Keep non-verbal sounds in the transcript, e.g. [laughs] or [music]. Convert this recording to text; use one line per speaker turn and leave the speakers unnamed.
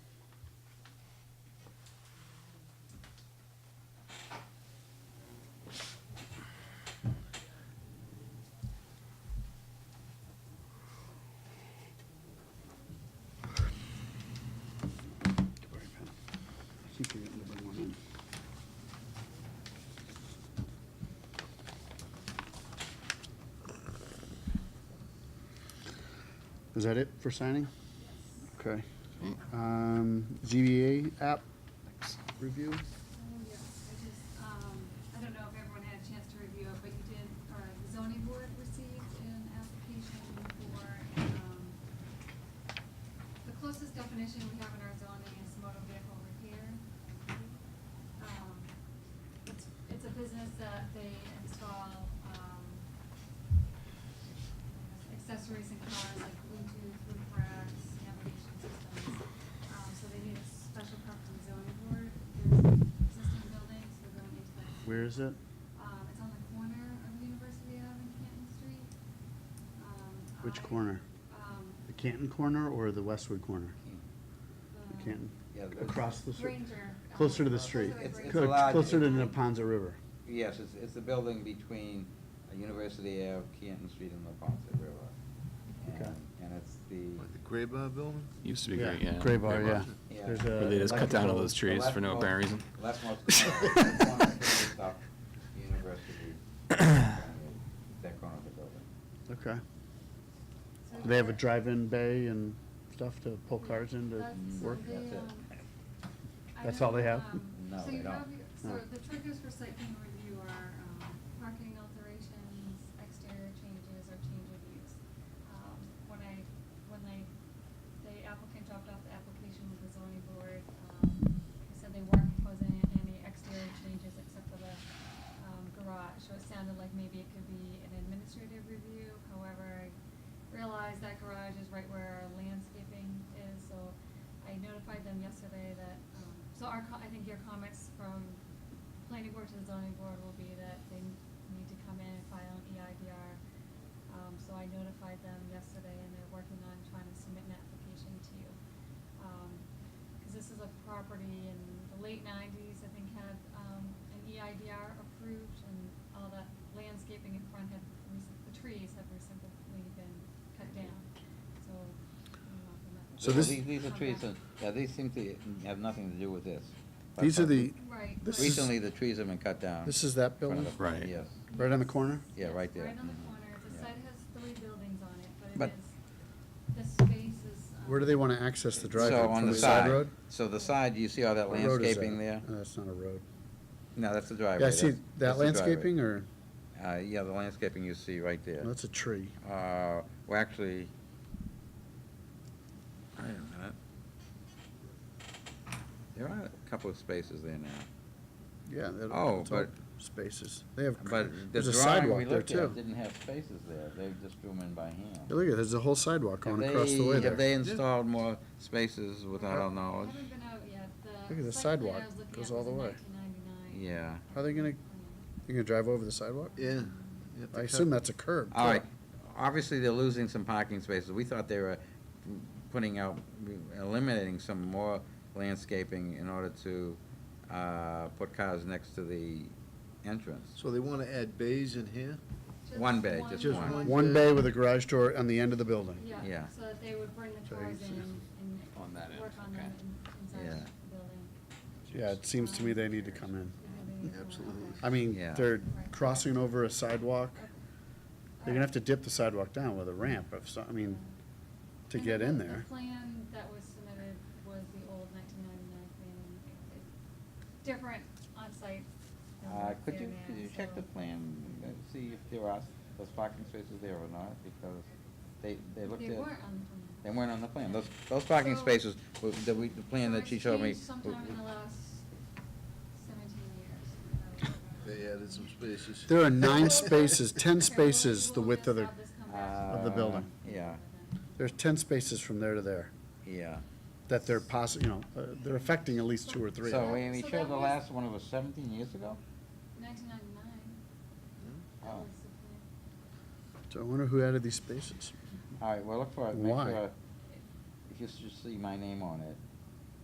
Is that it for signing? Okay. Um, ZBA app review?
Oh, yeah, I just, um, I don't know if everyone had a chance to review it, but you did, or the zoning board received an application for, um, the closest definition we have in our zoning is motor vehicle repair. Um, It's, it's a business that they install, um, accessories and cars like Bluetooth, roof racks, navigation systems. Um, so they need a special permit from the zoning board. There's existing buildings, we're going into that.
Where is it?
Um, it's on the corner of University Ave and Canton Street. Um,
Which
I-
corner?
Um,
The Canton corner or the Westwood corner?
the.
The Canton?
Yeah, the-
Across the street?
Ranger, um,
Closer to the
closer
street?
to the
It's- it's
Cl-
allowed-
Closer to the Ponza River?
Yes, it's, it's the building between uh, University Ave, Canton Street, and La Ponte River.
Okay.
And- And it's the.
Like the gray bar building?
Used to be great, yeah.
Gray bar, yeah.
Yeah.
There's
Where they
a
just cut down all
electrical-
those trees for no apparent reason.
Last month,
[laughs]
University, that corner of the building.
Okay.
So
Do They have a
they're-
drive-in bay and stuff to pull cars in to
That's- so
work?
they,
That's it.
um, I
That's
know,
all they have?
um,
No,
so
they
you
don't.
have- So
No.
the triggers for site plan review are, um, parking alterations, exterior changes, or change of use. Um, when I, when they, the applicant dropped off the application with the zoning board, um, they said they weren't proposing any exterior changes except for the, um, garage, so it sounded like maybe it could be an administrative review, however, I realize that garage is right where our landscaping is, so I notified them yesterday that, um, so our, co- I think your comments from planning board to the zoning board will be that they need to come in and file an E EIDR. Um, so I notified them yesterday and they're working on trying to submit an application to you. Um, cause this is a property in the late nineties, I think had, um, an EIDR approved and all that landscaping in front had recent, the trees have recently been cut down, so. I don't know if I'm not-
So this-
These, these are
Come
trees,
back.
that- yeah, these seem to have nothing to do with this. But,
These are
uh,
the,
Right.
This
right.
is-
Recently, the trees have been cut down.
this is that
in front
building?
of the-
Right.
Yes,
Right on the corner?
yeah,
Yes,
right there.
Right on the
Mhm.
corner, the
Yeah.
site has three buildings on it, but
But-
it is, the space is. um,
Where do they want to access the driveway?
So on
From
the
side road?
side, so the side, you see all that
What road is that? Uh-huh.
landscaping there?
No, That's not a road.
No, that's the driveway.
Yeah, I see
that's-
that
that's the driveway.
landscaping or,
Uh, yeah, the landscaping you see right there.
no, that's a tree.
Uh, well, actually,
Wait a minute.
there are a couple of spaces there now,
Yeah. that-
Oh,
it's all
but-
Spaces. They have,
but the
there's a
drawing we
sidewalk there
looked at
too.
didn't have spaces there, they just drew them in by hand.
Yeah, Look at, there's a whole sidewalk
Have
going
they-
across the way
Have they
there.
installed more spaces without our
Yeah.
I
knowledge?
haven't been out yet, the.
Look at the
site plan I
sidewalk.
was looking
Goes
at
all
was
the
in
way.
1999.
Yeah,
How are they gonna, they gonna drive over the sidewalk?
Yeah. you have to
I
cut-
assume that's a curb.
all
too.
right, obviously, they're losing some parking spaces, we thought they were putting out, eliminating some more landscaping in order to, uh, put cars next to the entrance.
So they wanna add bays in here?
Just
One bay, just
Just one.
One bay with a garage door on the end of the building.
Yeah,
Yeah.
so that they would bring the
So
cars
you
in
see-
and
On that end,
work on them in-
Yeah.
inside the building.
Yeah, it seems to me they need to come in.
Yeah, they-
Absolutely.
okay.
I mean,
Yeah.
they're crossing over a sidewalk.
Okay.
They're gonna have to dip the sidewalk down with a ramp of some, I mean, to
And
get
then
in
the-
there.
The plan that was submitted was the old nineteen ninety-nine plan, It- it's different on-site.
Uh,
elements
could
there
you,
now,
could you check the
so-
plan, and see if there are those parking spaces there or not, because they, they looked at.
They weren't on the
They
plan.
weren't on the plan, those, those parking
So-
spaces, were- the, we- the plan
So
that she
it's
showed me.
changed Sometime in the last seventeen years.
They added some spaces.
There are nine
[laughs]
spaces, ten
Okay, we'll-
spaces the
we'll
width of
just
the,
have this come back to
Of
the building.
Um, Yeah,
there's ten spaces from there to there
yeah.
that they're possi, you know, uh, they're affecting at least two or three.
So, we we
So that
showed the
was-
last one, it was seventeen years ago?
Nineteen ninety-nine, that
Oh.
was the plan.
So I wonder who added these spaces?
All right, well, look for it, make
Why?
sure, if you should see my name on it,